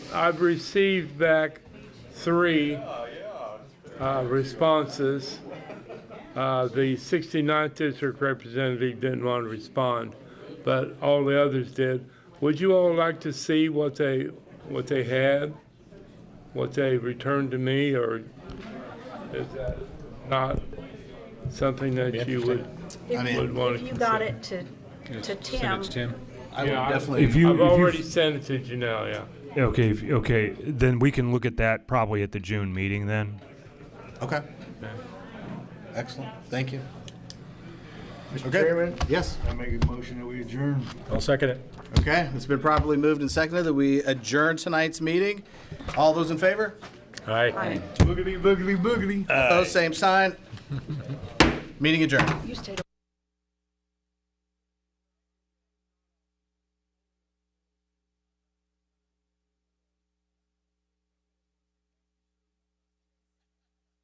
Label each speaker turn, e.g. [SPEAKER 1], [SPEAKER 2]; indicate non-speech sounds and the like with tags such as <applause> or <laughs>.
[SPEAKER 1] I've received back three uh, responses. Uh, The 69th district representative didn't want to respond, but all the others did. Would you all like to see what they, what they had? What they returned to me, or is that not something that you would,
[SPEAKER 2] I mean-
[SPEAKER 1] would want to
[SPEAKER 3] If you got
[SPEAKER 1] consider?
[SPEAKER 3] it to, to Tim,
[SPEAKER 4] Send it to Tim.
[SPEAKER 2] I would
[SPEAKER 1] Yeah, I-
[SPEAKER 2] definitely.
[SPEAKER 5] If you,
[SPEAKER 1] I've
[SPEAKER 5] if you-
[SPEAKER 1] already sent it to Janelle, yeah.
[SPEAKER 5] okay, if- okay, then we can look at that probably at the June meeting then.
[SPEAKER 2] Okay. Excellent. Thank you.
[SPEAKER 6] Mr.
[SPEAKER 2] Okay.
[SPEAKER 6] Chairman,
[SPEAKER 2] Yes.
[SPEAKER 6] I make a motion that we adjourn.
[SPEAKER 4] I'll second it.
[SPEAKER 2] Okay. It's been properly moved and seconded that we adjourn tonight's meeting. All those in favor?
[SPEAKER 6] Boogity, boogity,
[SPEAKER 4] <laughs>
[SPEAKER 6] boogity.
[SPEAKER 2] Opposed, same sign. Meeting adjourned.
[SPEAKER 3] you stayed